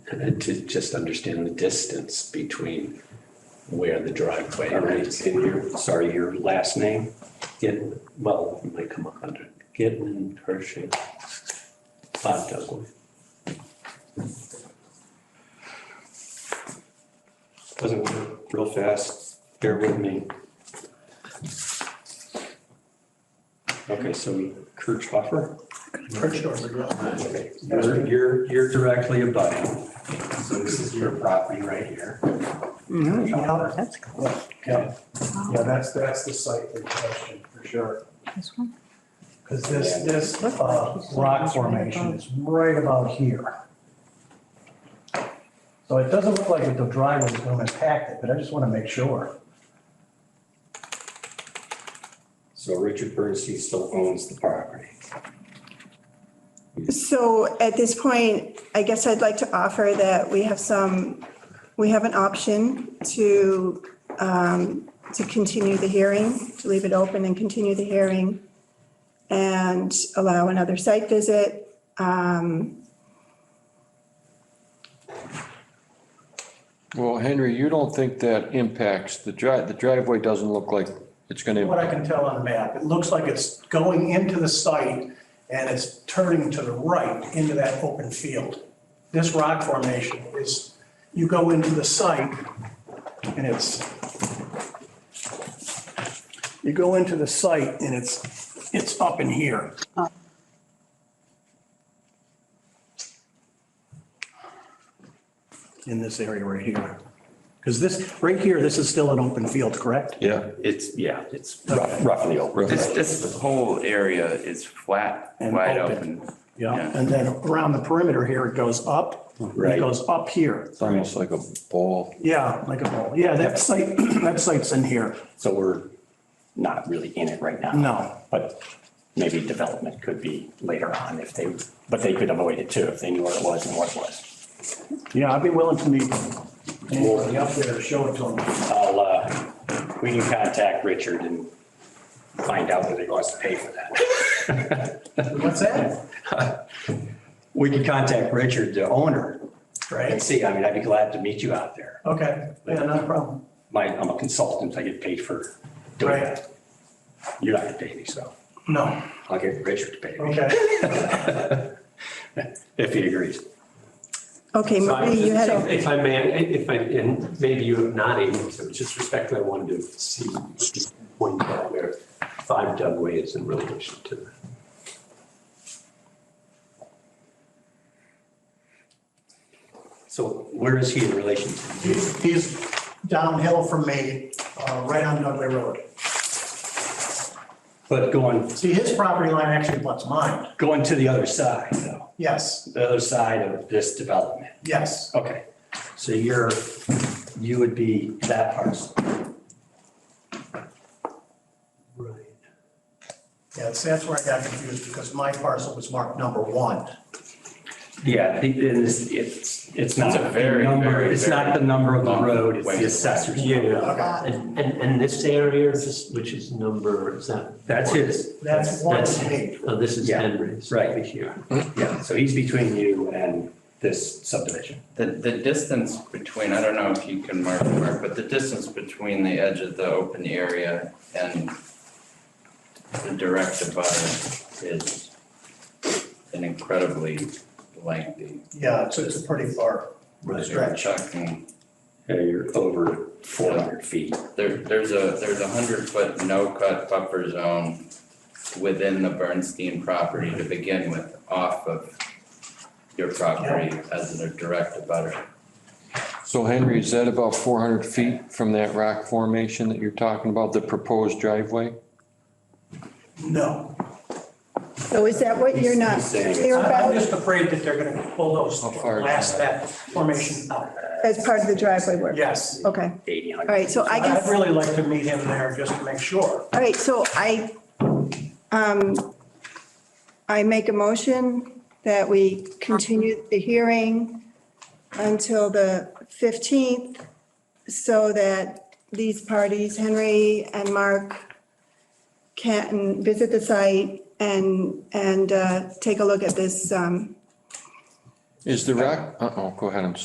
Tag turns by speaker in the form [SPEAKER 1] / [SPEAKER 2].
[SPEAKER 1] And then uh, to just understand the distance between where the driveway
[SPEAKER 2] All right,
[SPEAKER 1] is.
[SPEAKER 2] and your, sorry, your last name?
[SPEAKER 1] Gitten, well, it might come up under Gitten and Hershey. Bob Douglas.
[SPEAKER 2] Doesn't work real fast. Bear with me. Okay, so Kirchhoffer? Okay, You're, you're, you're directly above him. So this is your property right here.
[SPEAKER 3] Yeah, that's cool.
[SPEAKER 4] Yeah, yeah, that's, that's the site in question, for sure.
[SPEAKER 3] This one?
[SPEAKER 4] Because this, this uh, rock formation is right about here. So it doesn't look like the driveway is going to impact it, but I just want to make sure.
[SPEAKER 2] So Richard Bernstein still owns the property.
[SPEAKER 5] So at this point, I guess I'd like to offer that we have some, we have an option to, um, to continue the hearing, to leave it open and continue the hearing and allow another site visit.
[SPEAKER 6] Well, Henry, you don't think that impacts, the drive, the driveway doesn't look like it's gonna,
[SPEAKER 4] What I
[SPEAKER 6] impact.
[SPEAKER 4] can tell on the map, it looks like it's going into the site and it's turning to the right into that open field. This rock formation is, you go into the site and it's, you go into the site and it's, it's up in here. In this area right here. Because this, right here, this is still an open field, correct?
[SPEAKER 6] yeah,
[SPEAKER 7] It's, yeah, it's,
[SPEAKER 4] Okay.
[SPEAKER 2] Roughly over.
[SPEAKER 7] this, this whole area is flat,
[SPEAKER 4] And
[SPEAKER 7] wide
[SPEAKER 4] open.
[SPEAKER 7] open.
[SPEAKER 4] Yeah,
[SPEAKER 7] Yeah.
[SPEAKER 4] and then around the perimeter here, it goes up,
[SPEAKER 2] Right.
[SPEAKER 4] it goes up here.
[SPEAKER 6] it's almost like a ball.
[SPEAKER 4] Yeah, like a bowl. Yeah, that site, that site's in here.
[SPEAKER 2] So we're not really in it right now.
[SPEAKER 4] No.
[SPEAKER 2] But maybe development could be later on if they, but they could avoid it too if they knew what it was and what it was.
[SPEAKER 4] Yeah, I'd be willing to meet anybody up there to show it to them.
[SPEAKER 2] I'll, uh, we can contact Richard and find out whether he wants to pay for that.
[SPEAKER 4] What's that?
[SPEAKER 2] We can contact Richard, the owner, and
[SPEAKER 4] Right?
[SPEAKER 2] see. I mean, I'd be glad to meet you out there.
[SPEAKER 4] Okay, yeah, not a problem.
[SPEAKER 2] My, I'm a consultant. I get paid for doing
[SPEAKER 4] Right.
[SPEAKER 2] that. You're not gonna pay me, so
[SPEAKER 4] No,
[SPEAKER 2] I'll get Richard to pay me
[SPEAKER 4] okay.
[SPEAKER 2] if he agrees.
[SPEAKER 5] Okay,
[SPEAKER 8] So I was
[SPEAKER 5] Marie, you had,
[SPEAKER 8] just-
[SPEAKER 5] a-
[SPEAKER 8] If I may, if I, and maybe you have not answered, so just respectfully, I wanted to see, just point out where five Dugway is in relation to that.
[SPEAKER 2] So where is he in relation to you?
[SPEAKER 4] He's he's downhill from me, uh, right on Dudley Road.
[SPEAKER 2] But going,
[SPEAKER 4] See, his property line actually butts mine.
[SPEAKER 2] going to the other side though,
[SPEAKER 4] Yes,
[SPEAKER 2] the other side of this development.
[SPEAKER 4] yes,
[SPEAKER 2] Okay, so you're, you would be that parcel.
[SPEAKER 8] Right.
[SPEAKER 4] yes, that's where I got confused because my parcel was marked number one.
[SPEAKER 2] Yeah, it is, it's, it's not.
[SPEAKER 7] It's a very,
[SPEAKER 2] the number-
[SPEAKER 7] very,
[SPEAKER 2] It's not the number of the
[SPEAKER 7] long
[SPEAKER 2] road, it's
[SPEAKER 7] way.
[SPEAKER 2] the assessor's.
[SPEAKER 8] Yeah,
[SPEAKER 4] Okay,
[SPEAKER 8] and, and, and this area, this- which is number, is that?
[SPEAKER 2] That's his,
[SPEAKER 4] that's one to me.
[SPEAKER 8] Oh, this is
[SPEAKER 2] Yeah.
[SPEAKER 8] Henry's.
[SPEAKER 2] right here. Yeah, so he's between you and this subdivision.
[SPEAKER 7] The, the distance between, I don't know if you can mark, mark, but the distance between the edge of the open area and the direct above is an incredibly lengthy.
[SPEAKER 4] Yeah, it's, it's a pretty far.
[SPEAKER 2] Right.
[SPEAKER 7] You're talking,
[SPEAKER 2] Yeah, you're over four hundred feet.
[SPEAKER 7] there, there's a, there's a hundred foot no cut buffer zone within the Bernstein property to begin with, off of your property as a direct abutter.
[SPEAKER 6] So Henry, is that about four hundred feet from that rock formation that you're talking about, the proposed driveway?
[SPEAKER 4] No.
[SPEAKER 5] so is that what you're not
[SPEAKER 2] He's- he's saying-
[SPEAKER 5] clear
[SPEAKER 4] I'm
[SPEAKER 5] about
[SPEAKER 4] just afraid that they're gonna bulldoze,
[SPEAKER 6] How far is
[SPEAKER 4] blast that formation out.
[SPEAKER 5] as part of the driveway work?
[SPEAKER 4] Yes.
[SPEAKER 5] Okay,
[SPEAKER 2] Eighty
[SPEAKER 5] all
[SPEAKER 2] hundred.
[SPEAKER 5] right, so I guess.
[SPEAKER 4] I'd really like to meet him there just to make sure.
[SPEAKER 5] All right, so I, um, I make a motion that we continue the hearing until the 15th so that these parties, Henry and Mark, can visit the site and, and uh, take a look at this um,
[SPEAKER 6] Is the rock, uh-oh, go ahead, I'm